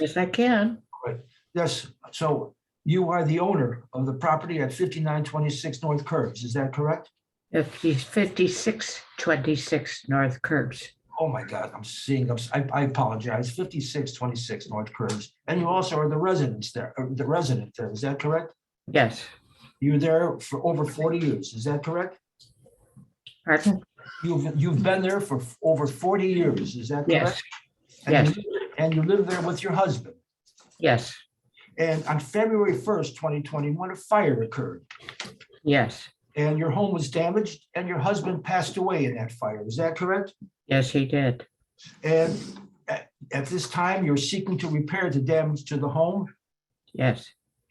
Yes, I can. Yes, so you are the owner of the property at fifty-nine twenty-six North Curves, is that correct? If he's fifty-six twenty-six North Curbs. Oh my God, I'm seeing, I'm s- I, I apologize, fifty-six twenty-six North Curves. And you also are the residents there, uh, the resident there, is that correct? Yes, You were there for over forty years, is that correct? pardon? You've, you've been there for f- over forty years, is that Yes, correct? And you- And you live there with your husband. yes, And on February first, twenty twenty-one, a fire occurred yes, and your home was damaged and your husband passed away in that fire, is that correct? yes, he did. And at, at this time, you're seeking to repair the damage to the home, Yes,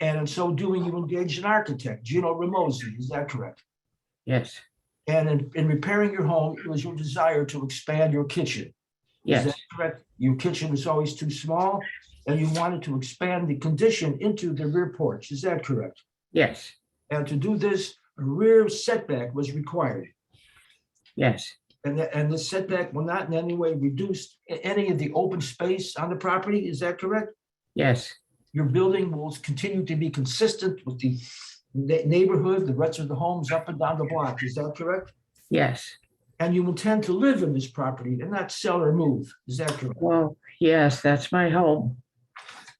and in so doing, you engaged an architect, Gino Ramosi, is that correct? yes, And in, in repairing your home, it was your desire to expand your kitchen. Is yes, that correct? Your kitchen was always too small, and you wanted to expand the condition into the rear porch, is that correct? yes, And to do this, a rear setback was required, yes, and, the- and the setback will not in any way reduce a- any of the open space on the property, is that correct? yes, your building will continue to be consistent with the ne- neighborhood, the rest of the homes up and down the block. Is that correct? yes. And you intend to live in this property and not sell or move. Is that correct? Well, yes, that's my home.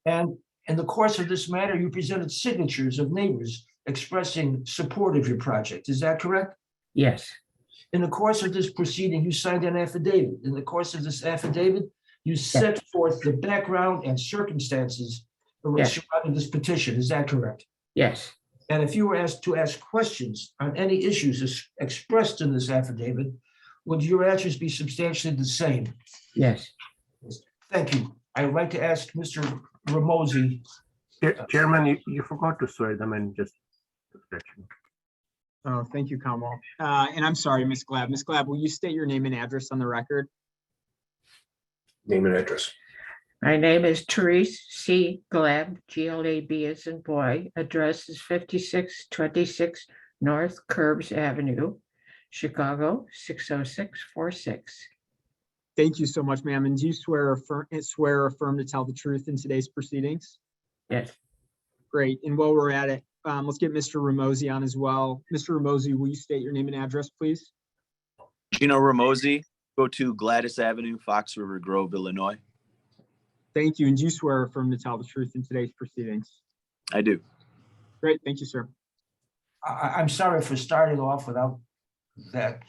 And in the course of this matter, you presented signatures of neighbors expressing support of your project. Is that correct? Yes, In the course of this proceeding, you signed an affidavit. In the course of this affidavit, you set forth the background and circumstances Yes. surrounding this petition. Is that correct? yes, And if you were asked to ask questions on any issues as expressed in this affidavit, would your answers be substantially the same? yes, Thank you. I'd like to ask Mr. Ramosi, Chair- Chairman, you- you forgot to swear them in just. Oh, thank you, Comwell. Uh, And I'm sorry, Ms. Glab. Ms. Glab, will you state your name and address on the record? Name and address. My name is Therese C. Glab, G L A B as in boy. Address is fifty-six twenty-six North Curbs Avenue, Chicago, six oh six four six. Thank you so much, ma'am. And do you swear or affirm, swear or affirm to tell the truth in today's proceedings? Yes, Great. And while we're at it, um, let's get Mr. Ramosi on as well. Mr. Ramosi, will you state your name and address, please? Gino Ramosi, go to Gladys Avenue, Fox River Grove, Illinois. Thank you. And do you swear or affirm to tell the truth in today's proceedings? I do. Great. Thank you, sir. I, I'm sorry for starting off without that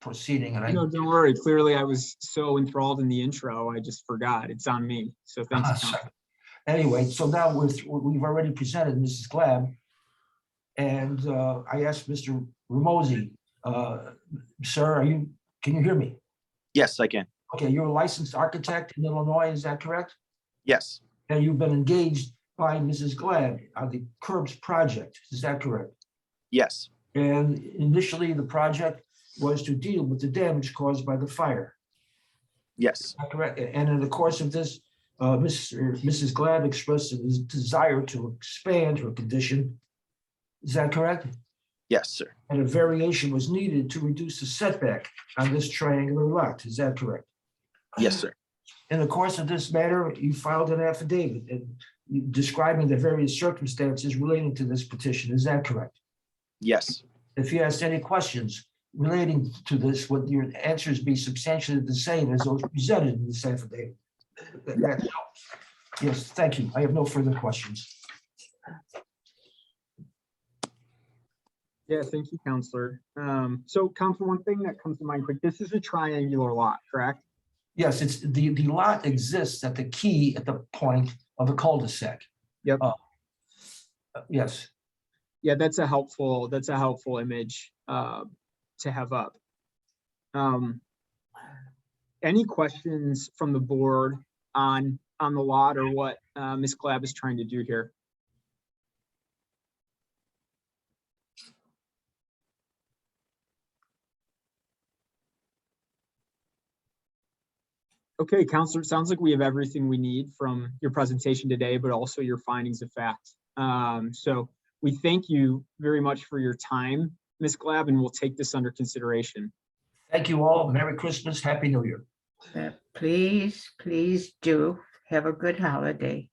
proceeding and I, No, don't worry. Clearly, I was so enthralled in the intro, I just forgot. It's on me. So thanks. Ah, Tom. sorry. anyway, so now we've, we've already presented Mrs. Glab. And uh, I asked Mr. Ramosi, uh, sir, are you, can you hear me? Yes, I can. Okay, you're a licensed architect in Illinois, is that correct? Yes, And you've been engaged by Mrs. Glad on the curbs project, is that correct? yes, And initially, the project was to deal with the damage caused by the fire, yes, is that correct? And in the course of this, uh, Mr. Mrs. Glad expressed a desire to expand her condition. Is that correct? yes, sir. And a variation was needed to reduce the setback on this triangular lot, is that correct? Yes, sir. In the course of this matter, you filed an affidavit and you- describing the various circumstances relating to this petition. Is that correct? Yes, If you asked any questions relating to this, would your answers be substantially the same as those presented in this affidavit? That- that- Yes, thank you. I have no further questions. Yeah, thank you, Counselor. Um, so Counselor, one thing that comes to mind quick, this is a triangular lot, correct? Yes, it's, the, the lot exists at the key at the point of the cul-de-sac. Yep. Uh, uh, Yes, Yeah, that's a helpful, that's a helpful image, uh, to have up. Um, any questions from the board on, on the lot or what, uh, Ms. Glab is trying to do here? Okay, Counselor, it sounds like we have everything we need from your presentation today, but also your findings of fact. Um, so we thank you very much for your time, Ms. Glab, and we'll take this under consideration. thank you all. Merry Christmas, Happy New Year. Uh, please, please do. Have a good holiday.